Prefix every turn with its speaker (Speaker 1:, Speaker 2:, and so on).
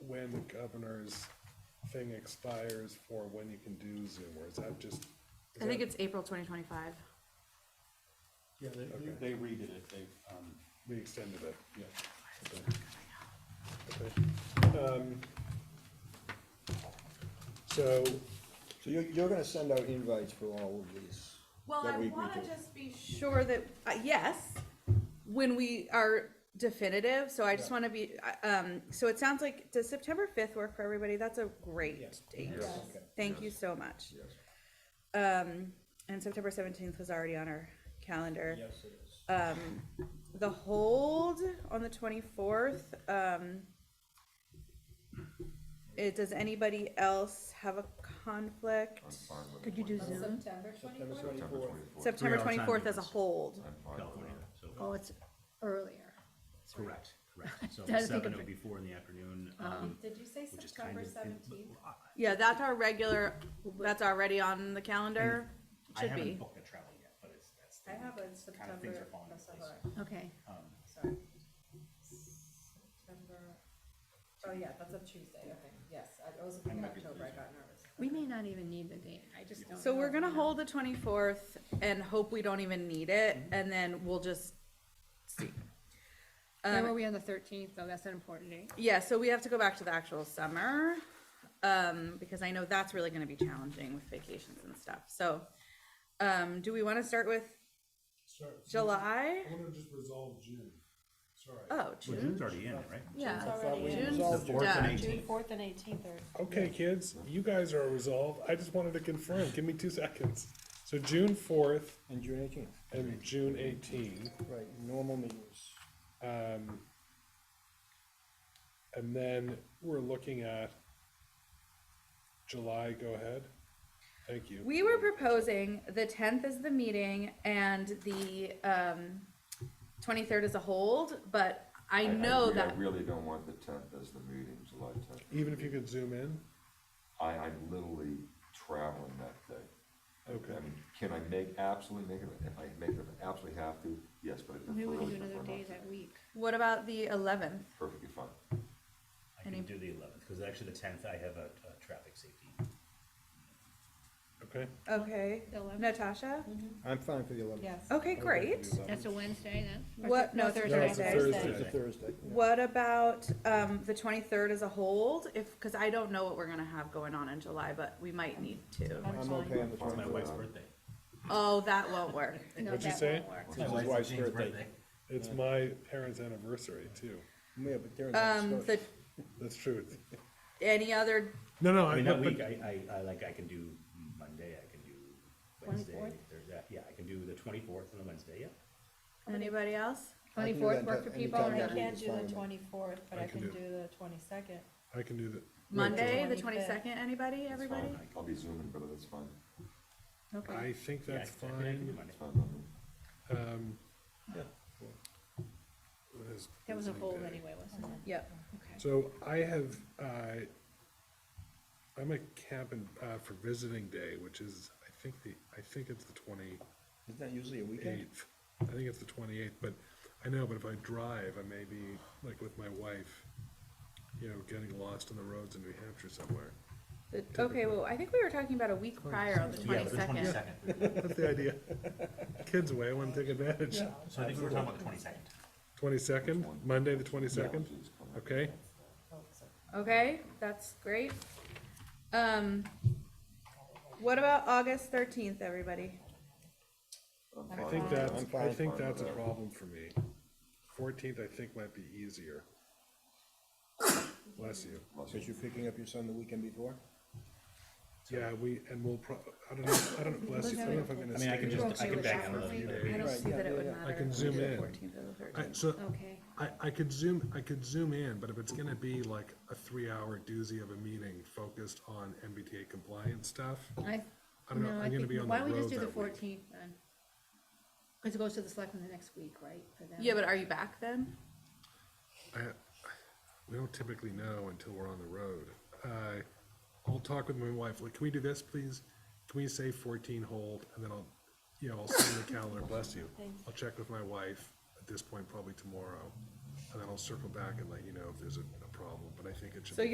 Speaker 1: when the governor's thing expires for when you can do Zoom, or is that just?
Speaker 2: I think it's April twenty twenty-five.
Speaker 3: Yeah, they, they-
Speaker 1: Okay.
Speaker 3: they redid it, they, um,
Speaker 1: We extended it.
Speaker 3: yeah.
Speaker 1: Okay. Um, So,
Speaker 4: So you're, you're gonna send out invites for all of these?
Speaker 5: Well,
Speaker 4: that
Speaker 5: I
Speaker 4: we agree
Speaker 5: wanna
Speaker 4: to.
Speaker 5: just be sure that, uh, yes, when we are definitive, so I just wanna be, uh, um, so it sounds like, does September fifth work for everybody? That's a great date.
Speaker 4: Okay.
Speaker 5: Thank you so much.
Speaker 4: Yes.
Speaker 5: Um, and September seventeenth was already on our calendar. Um,
Speaker 4: Yes, it is.
Speaker 5: The hold on the twenty-fourth, um, it, does anybody else have a conflict?
Speaker 2: Could you do Zoom?
Speaker 6: September
Speaker 4: September
Speaker 6: twenty-fourth?
Speaker 4: twenty-fourth.
Speaker 5: September
Speaker 3: Three-hour time
Speaker 5: twenty-fourth as a
Speaker 3: difference.
Speaker 5: hold.
Speaker 3: California, so,
Speaker 6: Oh, it's earlier.
Speaker 3: correct, correct. So
Speaker 6: I think
Speaker 3: seven
Speaker 6: of
Speaker 3: oh
Speaker 6: it.
Speaker 3: be four in the afternoon,
Speaker 6: Um,
Speaker 3: um,
Speaker 6: Did you say
Speaker 3: which is kind
Speaker 6: September
Speaker 3: of.
Speaker 6: seventeenth?
Speaker 5: Yeah, that's our regular, that's already on the calendar,
Speaker 3: I
Speaker 5: should
Speaker 3: haven't
Speaker 5: be.
Speaker 3: booked a travel yet, but it's, that's. the-
Speaker 6: I have a
Speaker 3: Kind of things are
Speaker 6: September,
Speaker 3: falling into
Speaker 6: that's a
Speaker 3: place.
Speaker 6: hard- okay,
Speaker 3: Um,
Speaker 6: sorry. September, oh yeah, that's a Tuesday, okay, yes, I- I was in
Speaker 3: might be
Speaker 6: October, I
Speaker 3: losing
Speaker 6: got nervous.
Speaker 7: We may not even need the date, I just don't.
Speaker 5: So we're
Speaker 7: know.
Speaker 5: gonna hold the twenty-fourth and hope we don't even need it,
Speaker 3: Mm-hmm.
Speaker 5: and then we'll just see.
Speaker 7: Where
Speaker 5: Um,
Speaker 7: were we on the thirteenth, though, that's an important date.
Speaker 5: Yeah, so we have to go back to the actual summer, um, because I know that's really gonna be challenging with vacations and stuff, so. Um, do we wanna start with July?
Speaker 1: I want to just resolve June, sorry.
Speaker 5: Oh,
Speaker 3: Well,
Speaker 5: June,
Speaker 3: June's already in, it, right?
Speaker 5: yeah.
Speaker 4: already in.
Speaker 5: June's
Speaker 3: The fourth and
Speaker 5: done.
Speaker 3: eighteenth.
Speaker 6: fourth and eighteenth are.
Speaker 1: Okay, kids, you guys are resolved. I just wanted to confirm. Give me two seconds. So June fourth
Speaker 4: And June eighteenth,
Speaker 1: and June eighteenth.
Speaker 4: right, normal meetings.
Speaker 1: Um, and then we're looking at July, go ahead. Thank you.
Speaker 5: We were proposing the tenth is the meeting and the, um, twenty-third is a hold, but I know
Speaker 8: agree.
Speaker 5: that,
Speaker 8: I really don't want the tenth as the meeting, July tenth.
Speaker 1: Even if you could zoom in,
Speaker 8: I, I'm literally traveling that day.
Speaker 1: Okay.
Speaker 8: I mean, can I make, absolutely make it, if I make it, I absolutely have to, yes, but I
Speaker 7: Maybe
Speaker 8: prefer,
Speaker 7: we can do
Speaker 8: really
Speaker 7: another
Speaker 8: prefer
Speaker 7: day
Speaker 8: not to.
Speaker 7: that week.
Speaker 5: what about the eleventh?
Speaker 8: Perfectly fine.
Speaker 3: I can do the eleventh, because actually the tenth, I have a, a traffic safety.
Speaker 1: okay?
Speaker 5: Okay,
Speaker 7: The 11th?
Speaker 5: Natasha?
Speaker 4: I'm fine for the eleventh.
Speaker 6: Yes.
Speaker 5: Okay, great.
Speaker 7: Oh, That's a Wednesday then? Or
Speaker 5: What-
Speaker 7: th-
Speaker 5: no,
Speaker 7: No,
Speaker 5: it's a
Speaker 1: No, it's a
Speaker 7: Thursday.
Speaker 1: Thursday.
Speaker 4: It's a Thursday. yeah.
Speaker 5: What about, um, the twenty-third as a hold? If, cause I don't know what we're gonna have going on in July, but we might need to.
Speaker 4: I'm okay on the
Speaker 3: It's my wife's
Speaker 4: twenty-fourth.
Speaker 3: birthday.
Speaker 5: Oh, that won't work.
Speaker 7: No,
Speaker 1: What'd you
Speaker 7: that
Speaker 1: say?
Speaker 7: won't work.
Speaker 3: It's
Speaker 4: my wife's
Speaker 3: Jane's
Speaker 4: birthday.
Speaker 1: It's my parents' anniversary too.
Speaker 4: Yeah, but they're in
Speaker 5: Um, the,
Speaker 4: discussion.
Speaker 1: That's true.
Speaker 5: any other,
Speaker 1: No, no,
Speaker 3: I
Speaker 1: I,
Speaker 3: mean, that
Speaker 1: but,
Speaker 3: week,
Speaker 1: but,
Speaker 3: I, I, I like, I can do Monday, I can do Wednesday, there's that, yeah, I can do the twenty-fourth and a Wednesday, yeah.
Speaker 5: anybody else?
Speaker 4: I can do
Speaker 7: Twenty-fourth
Speaker 4: that
Speaker 7: work for
Speaker 4: anytime
Speaker 7: people?
Speaker 4: that
Speaker 6: I
Speaker 4: week
Speaker 6: can't
Speaker 4: is
Speaker 6: do
Speaker 4: fine with
Speaker 6: the
Speaker 4: me.
Speaker 6: twenty-fourth, but
Speaker 1: I
Speaker 6: I
Speaker 1: can
Speaker 6: can
Speaker 1: do-
Speaker 6: do the twenty-second.
Speaker 1: I can do that.
Speaker 5: Monday, the
Speaker 6: 25th.
Speaker 5: twenty-second, anybody, everybody?
Speaker 3: fine.
Speaker 8: I'll be zooming, but that's fine.
Speaker 1: I
Speaker 7: Okay,
Speaker 1: think
Speaker 3: Yeah,
Speaker 1: that's
Speaker 3: I can- I can do
Speaker 1: fine.
Speaker 3: Monday.
Speaker 8: It's fine by me.
Speaker 1: Um.
Speaker 3: Yeah.
Speaker 1: what is-
Speaker 7: that was a
Speaker 1: what is
Speaker 7: hold
Speaker 1: my day?
Speaker 7: anyway, wasn't it?
Speaker 5: Yep.
Speaker 1: So I have, uh, I'm at camp and, uh, for visiting day, which is, I think the, I think it's the twenty-eighth.
Speaker 4: Isn't that usually a weekend?
Speaker 1: I think it's the twenty-eighth, but I know, but if I drive, I may be, like with my wife, you know, getting lost on the roads in New Hampshire somewhere.
Speaker 5: The- Okay, well, I think we were talking about a week prior on the
Speaker 3: Yeah, the
Speaker 5: twenty-second.
Speaker 3: twenty-second,
Speaker 1: That's the idea. Kids away, I want to take advantage.
Speaker 3: so I think we were talking about the twenty-second.
Speaker 1: Twenty-second, Monday, the twenty-second,
Speaker 8: Please come on.
Speaker 1: okay?
Speaker 5: Okay, that's great. Um, what about August thirteenth, everybody?
Speaker 8: I'm
Speaker 1: I
Speaker 8: fine.
Speaker 1: think
Speaker 8: with
Speaker 1: that's,
Speaker 8: that.
Speaker 1: I
Speaker 4: fine.
Speaker 1: think that's a problem for me. Fourteenth, I think, might be easier. Bless you.
Speaker 8: Unless
Speaker 4: Because
Speaker 8: you-
Speaker 4: you're picking up your son the weekend before?
Speaker 1: Yeah, we, and we'll prob, I don't know, I don't, bless you, I don't know if I'm gonna
Speaker 3: I mean, I can
Speaker 1: stay.
Speaker 3: just, I can back out of
Speaker 7: Right.
Speaker 3: the.
Speaker 5: I don't
Speaker 4: Right,
Speaker 5: see
Speaker 4: yeah,
Speaker 5: that it
Speaker 4: yeah,
Speaker 5: would
Speaker 4: yeah. I
Speaker 5: matter.
Speaker 1: can zoom in.
Speaker 5: Fourteenth or the
Speaker 1: I,
Speaker 5: thirteenth.
Speaker 1: so,
Speaker 7: Okay,
Speaker 1: I, I could zoom, I could zoom in, but if it's gonna be like a three-hour doozy of a meeting focused on MBTA compliance stuff,
Speaker 7: I,
Speaker 1: I don't know,
Speaker 7: no, I
Speaker 1: I'm gonna
Speaker 7: think,
Speaker 1: be on the
Speaker 7: why don't we
Speaker 1: road
Speaker 7: just do the
Speaker 1: that week.
Speaker 7: fourteenth then? Cause it goes to the selectmen the next week, right? for them?
Speaker 5: Yeah, but are you back then?
Speaker 1: I- We don't typically know until we're on the road. Uh, I'll talk with my wife, like, can we do this, please? Can we say fourteen hold, and then I'll, you know, I'll send the calendar, bless you. I'll check with my wife at this point, probably tomorrow, and then I'll circle back and let you know if there's a, a problem, but I think it should
Speaker 5: So
Speaker 1: be.